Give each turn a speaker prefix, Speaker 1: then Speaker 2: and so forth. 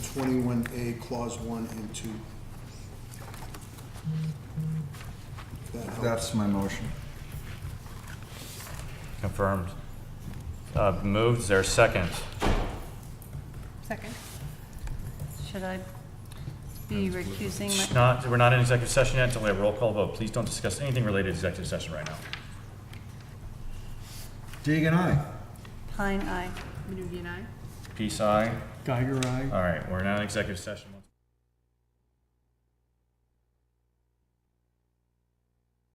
Speaker 1: twenty-one A, clause one and two. If that helps.
Speaker 2: That's my motion.
Speaker 3: Confirmed. Uh, Moved, is there a second?
Speaker 4: Second. Should I be recusing
Speaker 3: It's
Speaker 4: my,
Speaker 3: Not, we're not in executive session yet, until we have a roll call vote. Please don't discuss anything related to executive session right now.
Speaker 2: Deegan, aye.
Speaker 4: Pine, aye.
Speaker 3: Peace, aye.
Speaker 5: Geiger, aye.
Speaker 3: All right, we're now in executive session.